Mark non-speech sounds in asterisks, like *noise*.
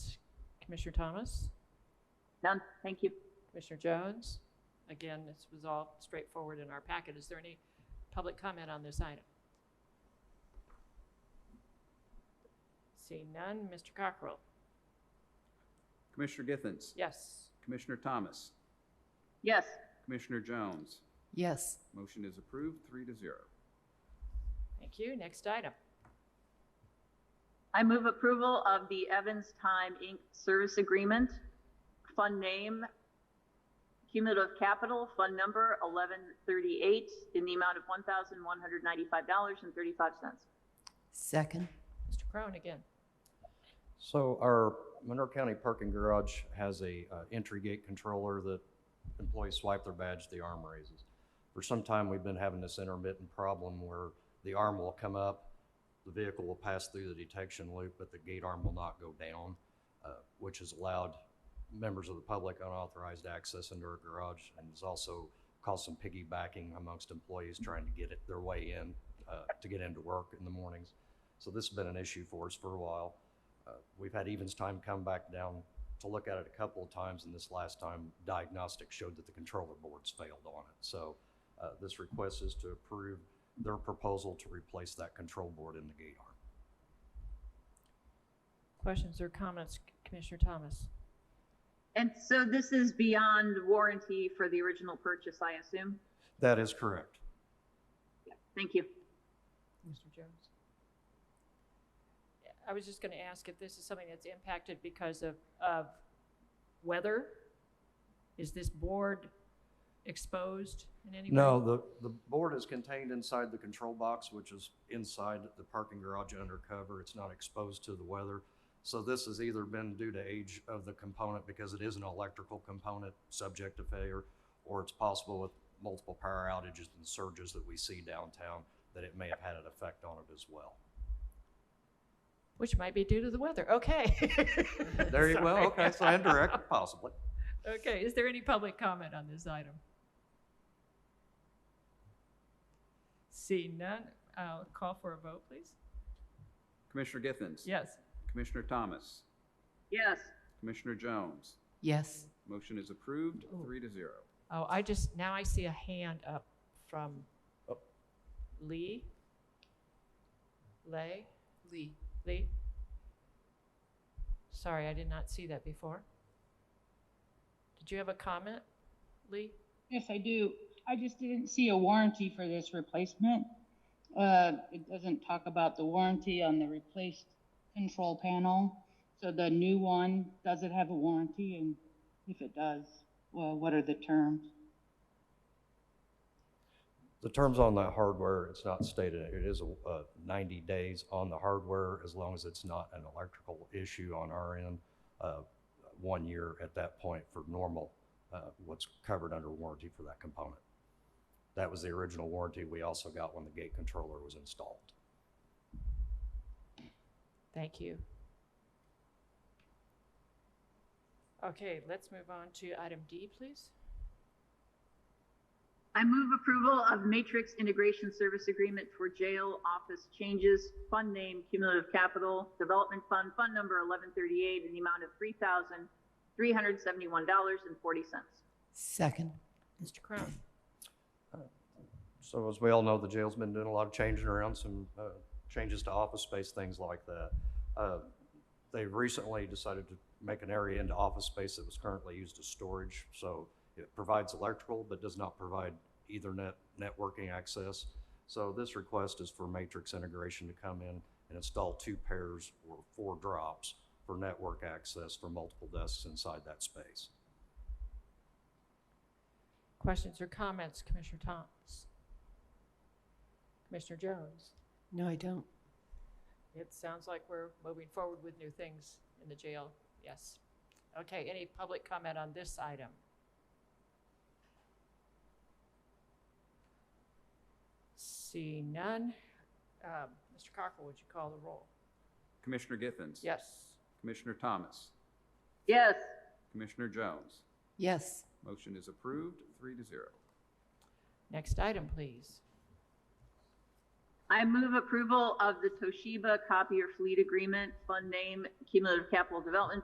Commissioner Thomas? None, thank you. Commissioner Jones? Again, this was all straightforward in our packet. Is there any public comment on this item? Seeing none, Mr. Cockrell? Commissioner Githens. Yes. Commissioner Thomas. Yes, Commissioner Jones. Yes. Motion is approved, three to zero. Thank you. Next item. I move approval of the Evans Time Inc. Service Agreement, Fund Name, Cumulative Capital, Fund Number 1138, in the amount of $1,195.35. Second. Mr. Crone again. So our Monroe County parking garage has a uh, entry gate controller that employees swipe their badge, the arm raises. For some time, we've been having this intermittent problem where the arm will come up, the vehicle will pass through the detection loop, but the gate arm will not go down, uh, which has allowed members of the public unauthorized access into our garage and has also caused some piggybacking amongst employees trying to get it their way in, uh, to get into work in the mornings. So this has been an issue for us for a while. Uh, We've had Evans Time come back down to look at it a couple of times, and this last time diagnostic showed that the controller boards failed on it. So uh, this request is to approve their proposal to replace that control board in the gate arm. Questions or comments, Commissioner Thomas? And so this is beyond warranty for the original purchase, I assume? That is correct. Thank you. Mr. Jones? I was just going to ask if this is something that's impacted because of, of weather? Is this board exposed in any way? No, the, the board is contained inside the control box, which is inside the parking garage undercover. It's not exposed to the weather. So this has either been due to age of the component because it is an electrical component subject to failure, or it's possible with multiple power outages and surges that we see downtown that it may have had an effect on it as well. Which might be due to the weather. Okay. *laughs* There you, well, Sorry. okay, so indirect, possibly. *laughs* Okay, is there any public comment on this item? Seeing none, I'll call for a vote, please. Commissioner Githens. Yes. Commissioner Thomas. Yes, Commissioner Jones. Yes. Motion is approved, Ooh. three to zero. Oh, I just, now I see a hand up from Oh. Lee? Lay? Lee. Lee? Sorry, I did not see that before. Did you have a comment, Lee? Yes, I do. I just didn't see a warranty for this replacement. Uh, it doesn't talk about the warranty on the replaced control panel. So the new one, does it have a warranty? And if it does, well, what are the terms? The terms on that hardware, it's not stated, it is a- uh, 90 days on the hardware, as long as it's not an electrical issue on our end. uh, One year at that point for normal, uh, what's covered under warranty for that component. That was the original warranty we also got when the gate controller was installed. Thank you. Okay, let's move on to item D, please. I move approval of Matrix Integration Service Agreement for Jail Office Changes, Fund Name, Cumulative Capital, Development Fund, Fund Number 1138, in the amount of $3,371.40. Second. Mr. Crown? So as we all know, the jail's been doing a lot of changing around, some uh, changes to office space, things like that. Uh, They recently decided to make an area into office space that was currently used as storage. So it provides electrical, but does not provide Ethernet networking access. So this request is for Matrix Integration to come in and install two pairs or four drops for network access for multiple desks inside that space. Questions or comments, Commissioner Thomas? Commissioner Jones? No, I don't. It sounds like we're moving forward with new things in the jail, yes. Okay, any public comment on this item? See none. Um, Mr. Cockrell, would you call the roll? Commissioner Githens. Yes. Commissioner Thomas. Yes, Commissioner Jones. Yes. Motion is approved, three to zero. Next item, please. I move approval of the Toshiba Copier Fleet Agreement, Fund Name, Cumulative Capital Development